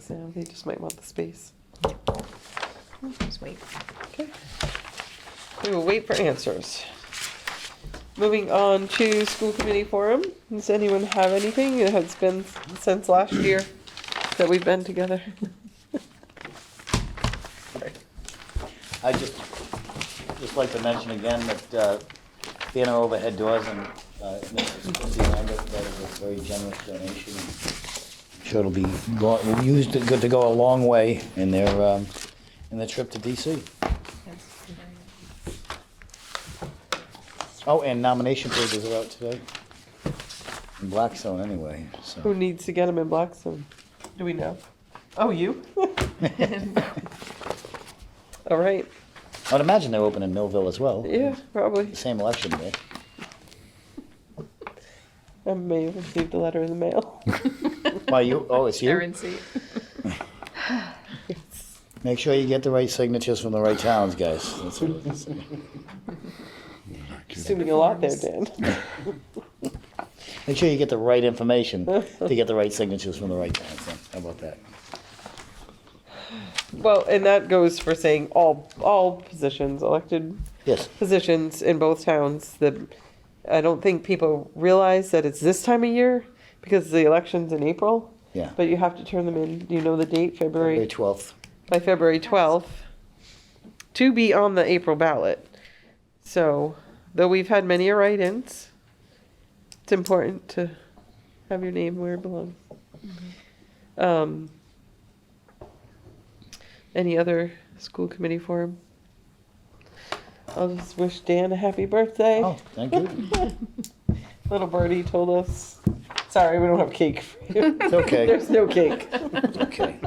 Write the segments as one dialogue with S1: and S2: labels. S1: So they just might want the space.
S2: Just wait.
S1: Okay. We will wait for answers. Moving on to school committee forum. Does anyone have anything? It has been since last year that we've been together. Sorry.
S3: I just, just like to mention again that uh, banner overhead doors and uh, Mrs. Christie Lambert, that is a very generous donation. I'm Sure it'll be go- used, good to go a long way in their, um, in their trip to DC. Oh, and nomination papers are out today. In Blackstone anyway,
S1: Who
S3: so.
S1: needs to get them in Blackstone? Do we know? Oh, you? All right.
S3: I'd imagine they're open in Millville as well.
S1: Yeah, probably.
S3: Same election day.
S1: I may have received a letter in the mail.
S3: Why, you, oh, it's you?
S2: Currency.
S3: Make sure you get the right signatures from the right towns, guys. That's what it is.
S1: Assuming a lot there, Dan.
S3: Make sure you get the right information to get the right signatures from the right towns. then. How about that?
S1: Well, and that goes for saying all, all positions, elected
S3: Yes.
S1: positions in both towns. The, I don't think people realize that it's this time of year because the election's in April.
S3: Yeah.
S1: But you have to turn them in, you know the date,
S3: February
S1: February,
S3: 12th.
S1: by February 12th, to be on the April ballot. So, though we've had many write-ins, it's important to have your name where it belongs. Um, any other school committee forum? I'll just wish Dan a happy birthday.
S3: Oh, thank you.
S1: Little birdie told us, sorry, we don't have cake for you.
S3: It's okay.
S1: There's no cake.
S3: Okay.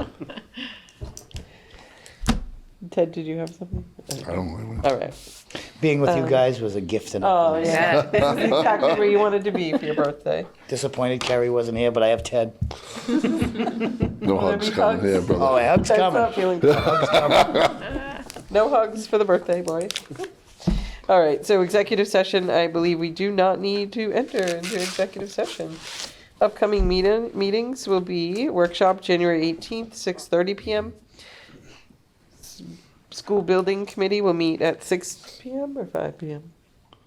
S1: Ted, did you have something?
S4: I don't know.
S1: All right.
S3: Being with you guys was a gift and
S1: Uh, Oh,
S3: a
S1: yeah.
S2: Yeah.
S1: This is exactly where you wanted to be for your birthday.
S3: disappointed Carrie wasn't here, but I have Ted.
S4: No
S1: Wanna
S4: hugs
S1: be
S4: coming
S1: hugs?
S4: here,
S3: Oh, I
S4: brother.
S3: have
S1: Ted's not feeling
S3: coming.
S1: No hugs for the birthday boy. All right, so executive session, I believe we do not need to enter into executive session. Upcoming meeting, meetings will be workshop January 18th, 6:30 PM. S- School building committee will meet at 6 PM or 5 PM?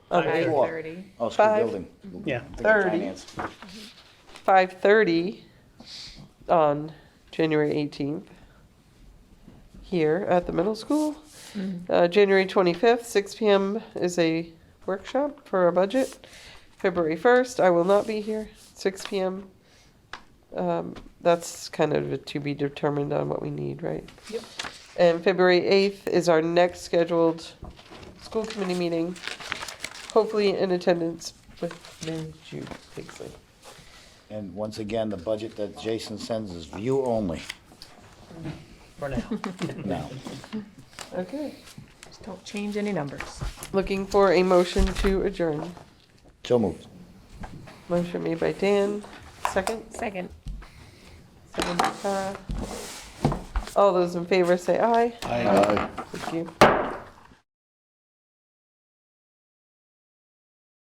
S1: Oh,
S3: Five.
S1: wait,
S3: Oh, school
S1: Five.
S3: building.
S5: Yeah.
S3: Think of
S1: Thirty.
S3: finance.
S1: 5:30 on January 18th here at the middle school. Uh, January 25th, 6 PM is a workshop for our budget. February 1st, I will not be here, 6 PM. Um, That's kind of to be determined on what we need, right?
S2: Yep.
S1: And February 8th is our next scheduled school committee meeting, hopefully in attendance with Mary Jude Pigsley.
S3: And once again, the budget that Jason sends is view only
S5: For now.
S3: now.
S1: Okay.
S2: Just don't change any numbers.
S1: Looking for a motion to adjourn.
S3: So moved.
S1: Motion made by Dan, second,
S2: Second.
S1: second by Tara. All those in favor say aye.
S4: Aye.
S1: Thank you.